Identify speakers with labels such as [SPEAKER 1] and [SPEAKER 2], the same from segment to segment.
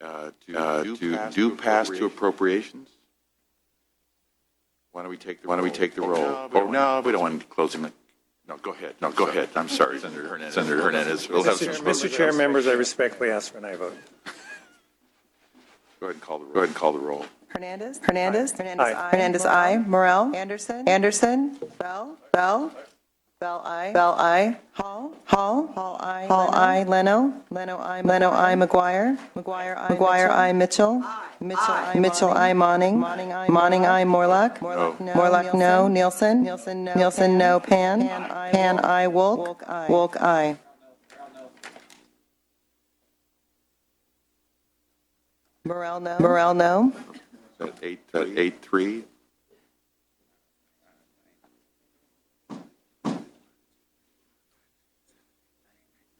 [SPEAKER 1] uh,
[SPEAKER 2] uh,
[SPEAKER 1] to
[SPEAKER 2] to
[SPEAKER 1] do pass to
[SPEAKER 2] appropriate.
[SPEAKER 1] appropriations?
[SPEAKER 2] Why don't we take the?
[SPEAKER 1] Why don't we
[SPEAKER 2] roll?
[SPEAKER 1] take the
[SPEAKER 2] Oh,
[SPEAKER 1] roll?
[SPEAKER 2] we don't
[SPEAKER 1] No,
[SPEAKER 2] want-
[SPEAKER 1] we don't want to close him.
[SPEAKER 2] No, go ahead.
[SPEAKER 1] No, go ahead, I'm sorry.
[SPEAKER 2] Senator Hernandez.
[SPEAKER 1] Senator Hernandez. We'll have some-
[SPEAKER 3] Mr. Chair, members, I respectfully ask for an aye vote.
[SPEAKER 2] Go ahead and call the roll.
[SPEAKER 1] Go ahead and call the roll.
[SPEAKER 4] Hernandez. Hernandez. Hernandez,
[SPEAKER 3] Aye.
[SPEAKER 4] I. Hernandez, I. Morel. Anderson. Anderson. Bell. Bell. Bell, I. Bell, I. Hall. Hall. Hall, I. Hall, I. Leno. Leno, I. Leno, I. McGuire. McGuire, I. McGuire, I. Mitchell. Mitchell, I. Mitchell, I. Monning. Monning, I. Monning, I. Morlock. Morlock,
[SPEAKER 1] No.
[SPEAKER 4] Morlock, no. Nielsen. Nielsen, no. Nielsen, no. Pan. Pan, I. Wolk. Wolk, I. Wolk, I. Morel, no. Morel, no.
[SPEAKER 1] At eight, at eight, three?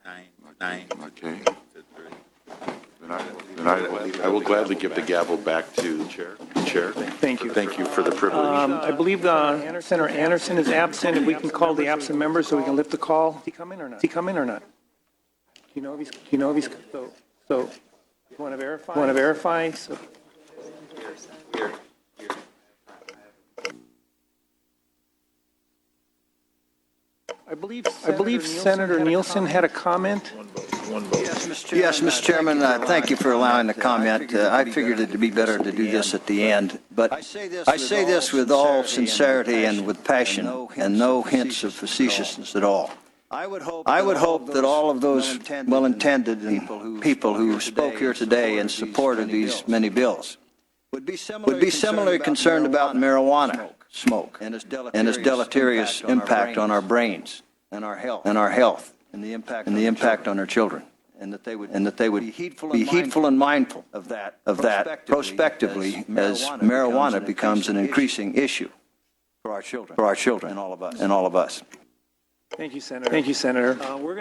[SPEAKER 1] Nine, nine. Okay. Then I, then I, I will gladly give the gavel back to the chair. Chair.
[SPEAKER 5] Thank you.
[SPEAKER 1] Thank you for the privilege.
[SPEAKER 5] Um, I believe uh, Anderson or Anderson is absent, if we can call the absent member so we can lift the call. Is he coming or not? Is he coming or not? Do you know if he's, do you know if he's, so, so, you want to verify? Want to verify? So I believe, I believe Senator Nielsen had a comment.
[SPEAKER 6] Yes, Mr. Chairman, uh, thank you for allowing the comment. Uh, I figured it'd be better to do this at the end, but I say this with all sincerity and with passion and no hints of facetiousness at all. I would hope that all of those well-intended and people who spoke here today in support of these many bills would be similarly concerned about marijuana smoke and its deleterious impact on our brains and our health and our health and the impact and the impact on our children and that they would and that they would be heedful, and, mindful of that of that prospectively as marijuana becomes an increasing issue for our children for our children and all of us and all of us
[SPEAKER 5] Thank you, Senator. Thank you, Senator. Uh, We're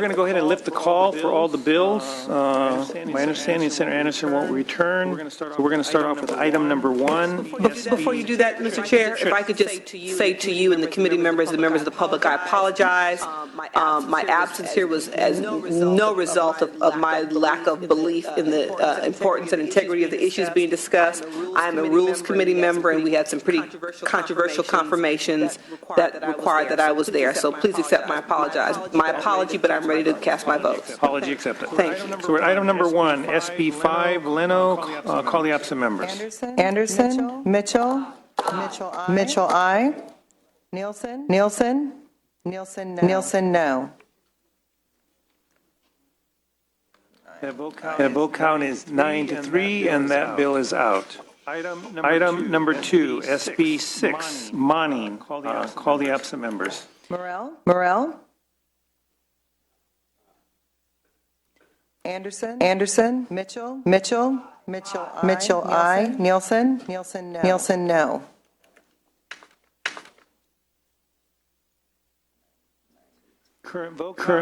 [SPEAKER 5] going to go ahead and lift the call for all the bills. Uh, My understanding, is Senator Anderson won't return. So we're going to start off with item number one.
[SPEAKER 7] Before you do that, Mr. Chair, if I could just say to you and the committee members, the members of the public, I apologize. Um, My absence here was as no result of of my lack of belief in the uh, importance and integrity of the issues being discussed. I am a Rules Committee member, and we had some pretty controversial confirmations that required that I was there. So please accept my apologize, my apology, but I'm ready to cast my votes.
[SPEAKER 5] Apology accepted.
[SPEAKER 7] Thank you.
[SPEAKER 5] So we're at item number one, SB 5, Leno, uh, call the absent members.
[SPEAKER 4] Anderson. Anderson. Mitchell. Mitchell, I. Mitchell, I. Nielsen. Nielsen. Nielsen, no. Nielsen, no.
[SPEAKER 5] The vote count- the vote count is nine to three, and that bill is out. Item number two, SB 6, Monning, uh, call the absent members.
[SPEAKER 4] Morel. Morel. Anderson. Anderson. Mitchell. Mitchell. Mitchell, I. Mitchell, I. Nielsen. Nielsen, no. Nielsen, no.
[SPEAKER 5] Current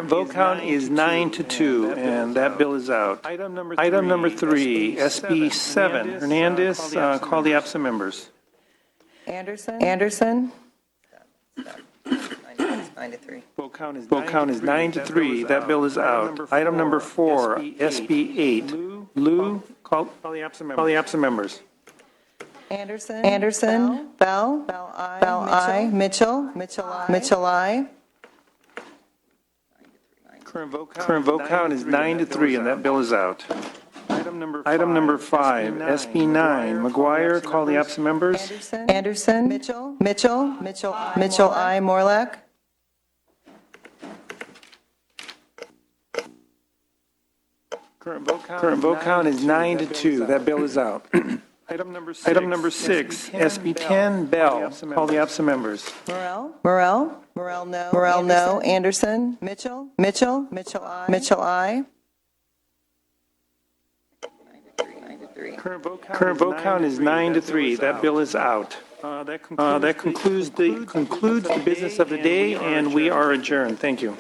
[SPEAKER 5] vote count is nine to two, and that bill is out. Item number three. SB 7, Hernandez, uh, call the absent members.
[SPEAKER 4] Anderson. Anderson.
[SPEAKER 5] Vote count is. nine to three, that bill is out. Item number four, SB 8, Lou, call call the absent members. Call the absent members.
[SPEAKER 4] Anderson. Anderson. Bell. Bell, I. Bell, I. Mitchell. Mitchell, I. Mitchell, I.
[SPEAKER 5] Current vote count is nine to three, and that bill is out. Item number five, SB 9, McGuire, call the absent members.
[SPEAKER 4] Anderson. Anderson. Mitchell. Mitchell. Mitchell, I. Mitchell, I. Morlock.
[SPEAKER 5] Current vote count is nine to two, that bill is out. Item number six, SB 10, Bell, call the absent members.
[SPEAKER 4] Morel. Morel. Morel, no. Morel, no. Anderson. Mitchell. Mitchell. Mitchell, I. Mitchell, I.
[SPEAKER 5] Current vote count is nine to three, that bill is out. Uh, That concludes the, concludes the business of the day, and we are adjourned. Thank you.